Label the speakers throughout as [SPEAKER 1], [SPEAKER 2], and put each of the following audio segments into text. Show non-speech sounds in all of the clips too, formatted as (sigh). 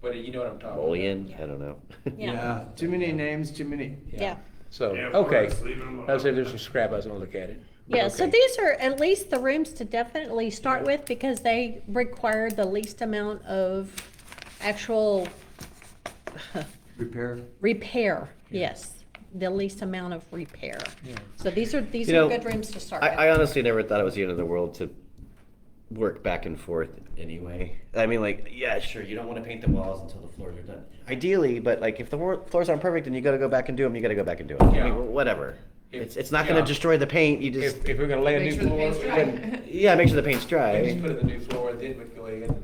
[SPEAKER 1] but you know what I'm talking about.
[SPEAKER 2] Bullion, I don't know.
[SPEAKER 3] Yeah.
[SPEAKER 4] Yeah, too many names, too many.
[SPEAKER 3] Yeah.
[SPEAKER 1] So,
[SPEAKER 5] Yeah, of
[SPEAKER 1] okay,
[SPEAKER 5] course, leave it alone.
[SPEAKER 1] I'll say there's some scrap, I was gonna look at it. but
[SPEAKER 3] Yeah, so
[SPEAKER 1] okay.
[SPEAKER 3] these are at least the rooms to definitely start with because they require the least amount of actual (laughs)
[SPEAKER 4] Repair.
[SPEAKER 3] repair, yes, the least amount of repair.
[SPEAKER 1] Yeah.
[SPEAKER 3] So these are, these
[SPEAKER 2] You know,
[SPEAKER 3] are good rooms to start
[SPEAKER 2] I,
[SPEAKER 3] with.
[SPEAKER 2] I honestly never thought it was the end of the world to work back and forth anyway. I mean, like, yeah, sure, you don't want to paint the walls until the floors are done. Ideally, but like, if the wor- floors aren't perfect and you got to go back and do them, you got to go back and do them. I
[SPEAKER 1] Yeah.
[SPEAKER 2] mean, wh- whatever.
[SPEAKER 1] If-
[SPEAKER 2] it's, it's not going
[SPEAKER 1] yeah.
[SPEAKER 2] to destroy the paint. You just,
[SPEAKER 1] If, if we're
[SPEAKER 3] (laughs)
[SPEAKER 1] gonna lay a
[SPEAKER 6] Make
[SPEAKER 1] new
[SPEAKER 6] sure the
[SPEAKER 1] floor,
[SPEAKER 6] paint's dry.
[SPEAKER 1] (laughs) then,
[SPEAKER 2] yeah, make sure the paint's
[SPEAKER 1] then just put
[SPEAKER 2] dry.
[SPEAKER 1] in the new floor, then we can go ahead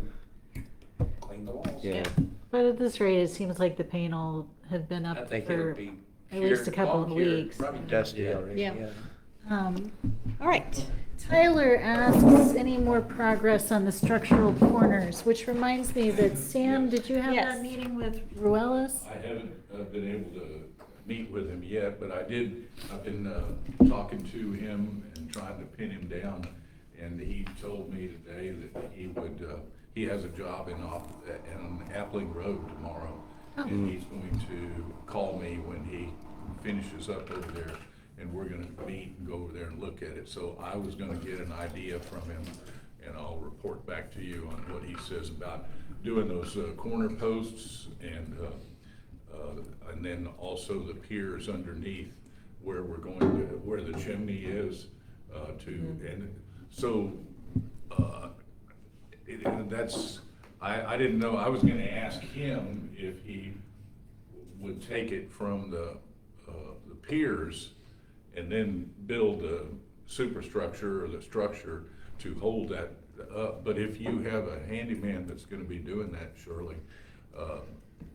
[SPEAKER 1] and clean the walls.
[SPEAKER 2] Yeah.
[SPEAKER 7] But at this rate, it seems like the paint will have been
[SPEAKER 1] I
[SPEAKER 7] up
[SPEAKER 1] think it
[SPEAKER 7] for,
[SPEAKER 1] would be.
[SPEAKER 7] at least a
[SPEAKER 1] cured,
[SPEAKER 7] couple
[SPEAKER 1] long
[SPEAKER 7] of
[SPEAKER 1] cured,
[SPEAKER 7] weeks.
[SPEAKER 1] Probably dusty
[SPEAKER 2] Yeah.
[SPEAKER 1] already.
[SPEAKER 3] Yeah.
[SPEAKER 7] um,
[SPEAKER 3] All right.
[SPEAKER 7] Tyler asks, any more progress on the structural corners? Which reminds me that, Sam, did you have
[SPEAKER 3] Yes.
[SPEAKER 7] that meeting with Ruelas?
[SPEAKER 5] I haven't uh, been able to meet with him yet, but I did, I've been uh, talking to him and trying to pin him down. And he told me today that he would, uh, he has a job in, Op- in Appling Road tomorrow. And he's going to call me when he finishes up over there and we're gonna meet and go over there and look at it. So I was gonna get an idea from him and I'll report back to you on what he says about doing those uh, corner posts and, uh, uh, and then also the piers underneath where we're going to, where the chimney is, uh, to, and so, uh, it- and Uh, that's, I, I didn't know, I was gonna ask him if he would take it from the, uh, the piers and then build the superstructure or the structure to hold that up. But if you have a handyman that's gonna be doing that, surely, uh,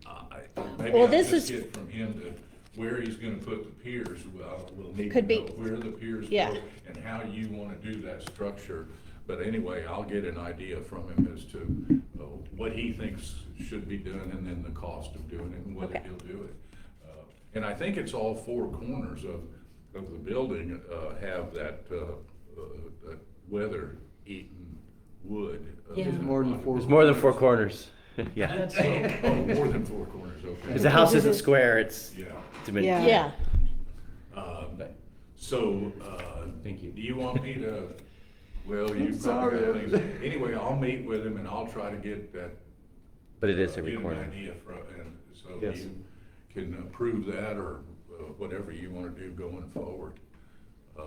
[SPEAKER 5] I, maybe
[SPEAKER 3] Well,
[SPEAKER 5] I'll
[SPEAKER 3] this
[SPEAKER 5] just
[SPEAKER 3] is-
[SPEAKER 5] get from him to where he's gonna put the piers, well, we'll need to
[SPEAKER 3] Could be-
[SPEAKER 5] know where the piers
[SPEAKER 3] Yeah.
[SPEAKER 5] go and how you wanna do that structure. But anyway, I'll get an idea from him as to uh, what he thinks should be done and then the cost of doing it and whether
[SPEAKER 3] Okay.
[SPEAKER 5] he'll do it. Uh, And I think it's all four corners of, of the building uh, have that, uh, uh, that weather-eaten wood. uh,
[SPEAKER 7] Yeah. There's
[SPEAKER 4] more than four
[SPEAKER 5] (laughs)
[SPEAKER 2] There's more than four corners. (laughs) yeah.
[SPEAKER 5] Oh, oh, more than four corners,
[SPEAKER 2] Because the
[SPEAKER 5] okay.
[SPEAKER 2] house isn't square, it's
[SPEAKER 5] Yeah.
[SPEAKER 2] diminished.
[SPEAKER 3] Yeah.
[SPEAKER 5] Um, So, uh,
[SPEAKER 2] Thank you.
[SPEAKER 5] do you want me to, well, you
[SPEAKER 4] sorry.
[SPEAKER 5] probably got things, anyway, I'll meet with him and I'll try to get that. uh,
[SPEAKER 2] But it is every
[SPEAKER 5] get an
[SPEAKER 2] corner.
[SPEAKER 5] idea from, and so
[SPEAKER 2] Yes.
[SPEAKER 5] you can approve that or uh, whatever you wanna do going forward. Uh,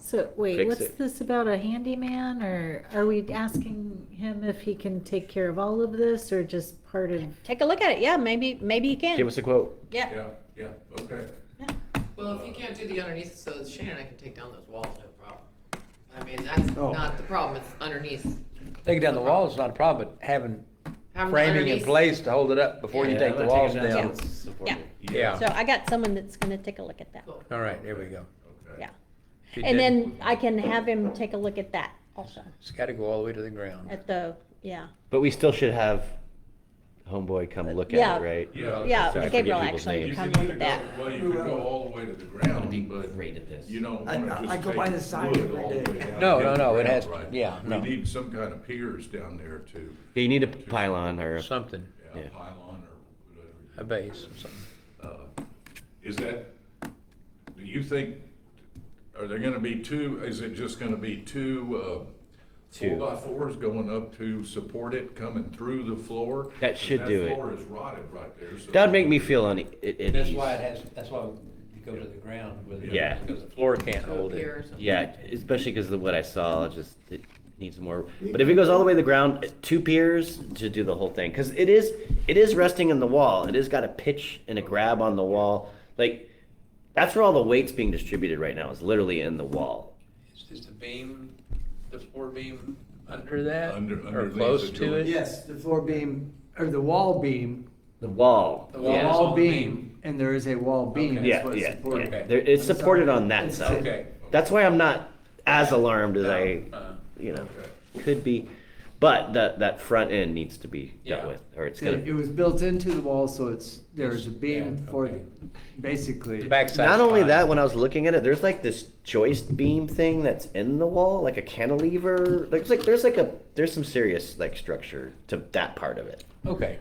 [SPEAKER 7] So, wait,
[SPEAKER 2] Fix
[SPEAKER 7] what's
[SPEAKER 2] it.
[SPEAKER 7] this about a handyman, or are we asking him if he can take care of all of this, or just part of?
[SPEAKER 3] Take a look at it. Yeah, maybe, maybe you
[SPEAKER 2] Give
[SPEAKER 3] can.
[SPEAKER 2] us a quote.
[SPEAKER 3] Yeah.
[SPEAKER 5] Yeah, yeah, okay.
[SPEAKER 6] Well, if you can't do the underneath, so Shane and I can take down those walls, no problem. I mean, that's
[SPEAKER 4] Oh.
[SPEAKER 6] not the problem, it's underneath.
[SPEAKER 1] Taking down the walls is not a problem, but having
[SPEAKER 6] Having
[SPEAKER 1] framing in
[SPEAKER 6] underneath-
[SPEAKER 1] place to hold it up before you
[SPEAKER 2] Yeah,
[SPEAKER 1] take the
[SPEAKER 2] I'm
[SPEAKER 1] walls
[SPEAKER 2] taking it
[SPEAKER 1] down.
[SPEAKER 2] it's supported.
[SPEAKER 1] Yeah,
[SPEAKER 3] So I got someone that's gonna take a look at that.
[SPEAKER 6] Cool.
[SPEAKER 1] all right, there we go.
[SPEAKER 5] Okay.
[SPEAKER 3] Yeah.
[SPEAKER 1] She
[SPEAKER 3] And
[SPEAKER 1] did-
[SPEAKER 3] then I can have him take a look at that also,
[SPEAKER 1] It's gotta go all the way to the ground.
[SPEAKER 3] at the, yeah.
[SPEAKER 2] But we still should have homeboy come look
[SPEAKER 3] Yeah.
[SPEAKER 2] at it, right?
[SPEAKER 5] Yeah.
[SPEAKER 3] Yeah,
[SPEAKER 2] Sorry, I forget
[SPEAKER 3] Gabriel
[SPEAKER 2] people's
[SPEAKER 3] actually
[SPEAKER 2] names.
[SPEAKER 5] You
[SPEAKER 3] come
[SPEAKER 5] can
[SPEAKER 3] look
[SPEAKER 5] either
[SPEAKER 3] at that.
[SPEAKER 5] go, well, you can go all the way to the ground, but
[SPEAKER 2] at this.
[SPEAKER 5] You don't
[SPEAKER 4] I-
[SPEAKER 5] wanna
[SPEAKER 4] I-
[SPEAKER 5] just
[SPEAKER 4] I go by
[SPEAKER 5] take
[SPEAKER 4] the side
[SPEAKER 5] wood
[SPEAKER 4] every
[SPEAKER 5] all the
[SPEAKER 4] day.
[SPEAKER 5] way down
[SPEAKER 1] No,
[SPEAKER 5] to
[SPEAKER 1] no,
[SPEAKER 5] the
[SPEAKER 1] no, it
[SPEAKER 5] ground,
[SPEAKER 1] has-
[SPEAKER 5] right?
[SPEAKER 1] yeah, no.
[SPEAKER 5] We need some kind of piers down there to,
[SPEAKER 2] Yeah, you need a pylon or a
[SPEAKER 1] Something,
[SPEAKER 5] yeah,
[SPEAKER 2] Yeah.
[SPEAKER 5] pylon or
[SPEAKER 1] a
[SPEAKER 5] whatever. uh,
[SPEAKER 1] base or something.
[SPEAKER 5] Is that, do you think, are there gonna be two, is it just gonna be two, uh,
[SPEAKER 2] Two.
[SPEAKER 5] four by fours going up to support it coming through the floor?
[SPEAKER 2] That
[SPEAKER 5] 'Cause
[SPEAKER 2] should do it.
[SPEAKER 5] That floor is rotted right there, so.
[SPEAKER 2] That'd make me feel on at, at
[SPEAKER 1] That's
[SPEAKER 2] ease.
[SPEAKER 1] why it has, that's why you go to the ground with it.
[SPEAKER 2] Yeah.
[SPEAKER 1] Because the floor can't
[SPEAKER 6] To a
[SPEAKER 1] hold
[SPEAKER 6] pier or
[SPEAKER 1] it.
[SPEAKER 6] something.
[SPEAKER 2] Yeah, especially because of what I saw, it just it needs more. But if it goes all the way to the ground, uh, two piers to do the whole thing, because it is it is resting on the wall. It has got a pitch and a grab on the wall. Like that's where all the weight's being distributed right now. Is literally in the wall.
[SPEAKER 1] Is the beam, the floor beam under that?
[SPEAKER 5] Under-
[SPEAKER 1] Or
[SPEAKER 5] underneath
[SPEAKER 1] close
[SPEAKER 5] the
[SPEAKER 1] to
[SPEAKER 5] joint.
[SPEAKER 1] it?
[SPEAKER 4] Yes, the floor beam, or the wall beam,
[SPEAKER 2] The wall.
[SPEAKER 1] The
[SPEAKER 4] the
[SPEAKER 1] wall.
[SPEAKER 2] Yeah.
[SPEAKER 1] Yes.
[SPEAKER 4] wall beam, and there is a wall
[SPEAKER 1] Okay.
[SPEAKER 4] beam, that's
[SPEAKER 2] Yeah,
[SPEAKER 4] what it's
[SPEAKER 2] yeah,
[SPEAKER 4] supported.
[SPEAKER 2] yeah.
[SPEAKER 1] Okay.
[SPEAKER 2] There, it's
[SPEAKER 4] I'm sorry.
[SPEAKER 2] supported on that
[SPEAKER 4] It's-
[SPEAKER 2] side.
[SPEAKER 1] Okay.
[SPEAKER 2] That's why I'm not as alarmed as I,
[SPEAKER 1] Uh,
[SPEAKER 2] you know,
[SPEAKER 5] Okay.
[SPEAKER 2] could be. But that that front end needs to be
[SPEAKER 1] Yeah.
[SPEAKER 2] dealt with, or it's gonna.
[SPEAKER 4] It it was built into the wall, so it's, there's a beam
[SPEAKER 1] Yeah,
[SPEAKER 4] for,
[SPEAKER 1] okay.
[SPEAKER 4] basically.
[SPEAKER 1] The backside.
[SPEAKER 2] Not only that, when I was looking at it, there's like this joist beam thing that's in the wall, like a cantilever. Like, it's like there's like a there's some serious like structure to that part of it.
[SPEAKER 1] Okay,